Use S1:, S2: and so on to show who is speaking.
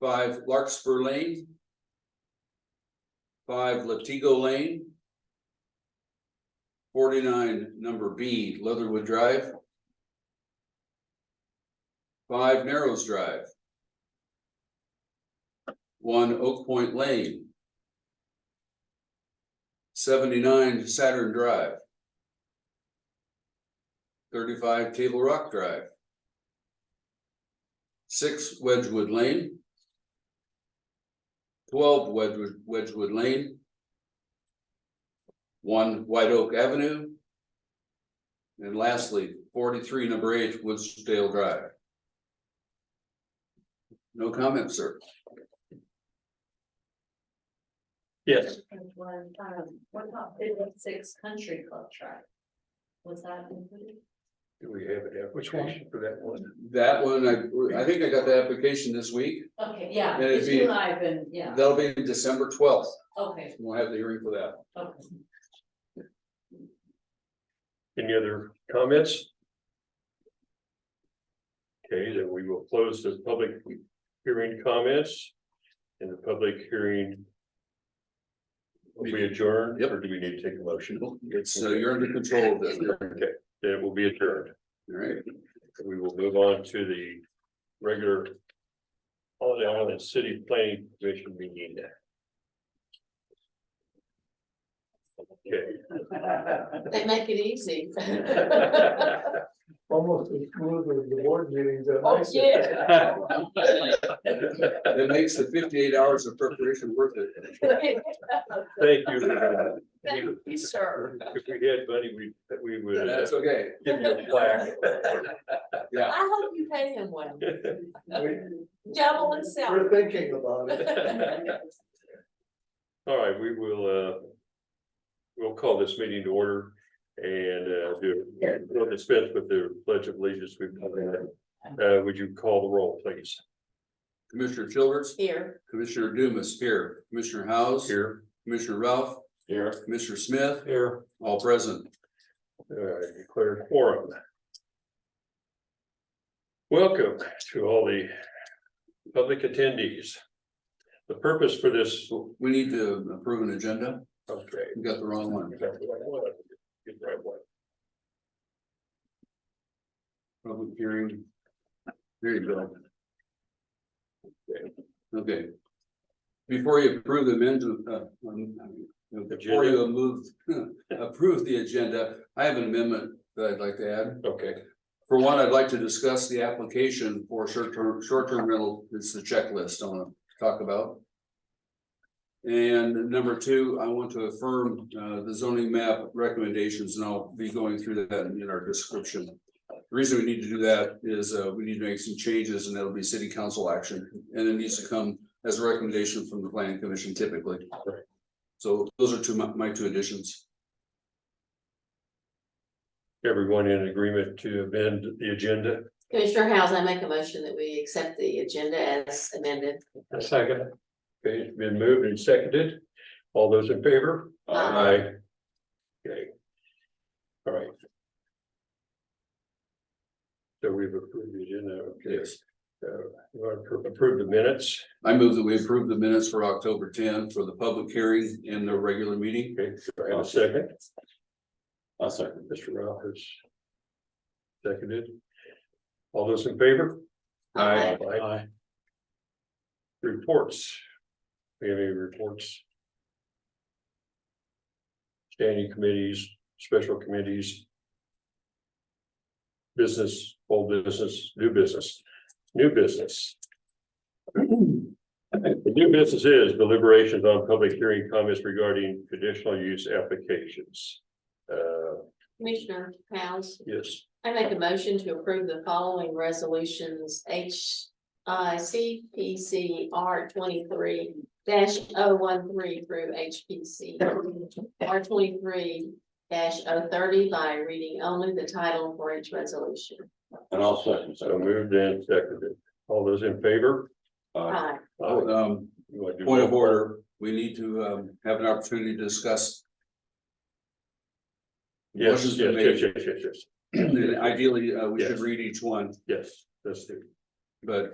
S1: five Larkspur Lane. Five Latigo Lane. Forty-nine, number B, Leatherwood Drive. Five Narrows Drive. One Oak Point Lane. Seventy-nine Saturn Drive. Thirty-five Table Rock Drive. Six Wedgewood Lane. Twelve Wedgewood, Wedgewood Lane. One White Oak Avenue. And lastly, forty-three, number eight, Woodsdale Drive. No comment, sir.
S2: Yes,
S3: And one, um, what about fifty-six Country Club Track? Was that included?
S4: Do we have an
S2: Which one?
S4: application for that one?
S1: That one, I, I think I got the application this week.
S3: Okay, yeah,
S1: And it'd
S3: it's
S1: be-
S3: July, been, yeah,
S1: That'll be December twelfth.
S3: okay,
S1: We'll have the hearing for that.
S3: okay.
S2: any other comments? Okay, then we will close the public hearing comments and the public hearing. Will be adjourned,
S1: Yep.
S2: or do we need to take a motion?
S1: It's, uh, you're under control of this, all
S2: Okay, then it will be adjourned.
S1: right?
S2: We will move on to the regular Holiday Island City Planning Commission meeting. Okay.
S3: They make it easy.
S4: Almost as smooth as the board meetings. that I
S3: Oh,
S4: said.
S3: yeah.
S1: It makes the fifty-eight hours of preparation worth it.
S2: Thank you.
S3: Thank you, sir.
S2: If we had money, we, we would uh,
S1: That's okay.
S2: give you a plaque.
S1: Yeah.
S3: I hope you pay him well.
S4: We-
S3: Double and sell.
S4: We're thinking about it.
S2: All right, we will, uh, we'll call this meeting to order and, uh, do, we'll dispense with the pledge of allegiance. We've done that. Uh, would you call the roll, please?
S1: Commissioner Childers,
S3: Here.
S1: Commissioner Dumas here, Commissioner House,
S2: Here.
S1: Commissioner Ralph,
S2: Here.
S1: Commissioner Smith,
S2: Here.
S1: all present.
S2: All right, declare quorum. Welcome to all the public attendees. The purpose for this,
S1: We need to approve an agenda.
S2: okay,
S1: We got the wrong one. Public hearing. There you go. Okay. Before you approve the amendment, uh, um, before you move, approve the agenda, I have an amendment that I'd like to add.
S2: Okay,
S1: For one, I'd like to discuss the application for short-term, short-term rental, it's the checklist I wanna talk about. And number two, I want to affirm, uh, the zoning map recommendations, and I'll be going through that in our description. The reason we need to do that is, uh, we need to make some changes, and that'll be city council action, and it needs to come as a recommendation from the planning commission typically.
S2: Right.
S1: So those are two, my, my two additions.
S2: everyone in agreement to amend the agenda?
S5: Commissioner House, I make a motion that we accept the agenda as amended.
S2: A second. Okay, it's been moved and seconded. All those in favor?
S5: Aye.
S2: Okay. All right. So we've approved the agenda, okay.
S1: Yes.
S2: So you want to approve the minutes?
S1: I move that we approve the minutes for October ten for the public hearing and the regular meeting.
S2: Okay, do I have a second? I'll second. Mr. Ralph has seconded. All those in favor?
S1: Aye.
S2: Aye. Reports. We have any reports? Standing committees, special committees. Business, old business, new business, new business. The new business is deliberations on public hearing comments regarding conditional use applications. Uh,
S5: Commissioner House,
S2: yes,
S5: I make a motion to approve the following resolutions, H I C P C R twenty-three 13 through H P C R twenty-three 30 by reading only the title for each resolution.
S6: And I'll second,
S2: so
S6: so.
S2: moved and seconded. All those in favor?
S6: uh,
S5: Aye.
S1: Oh, Um,
S2: You wanna do
S1: point of
S2: roll call?
S1: order, we need to um have an opportunity to discuss.
S2: Yes,
S1: Motion's
S2: yes,
S1: been
S2: yes, yes, yes, yes,
S1: made. Ideally, uh, we should
S2: Yes.
S1: read each one,
S2: yes, that's it.
S1: but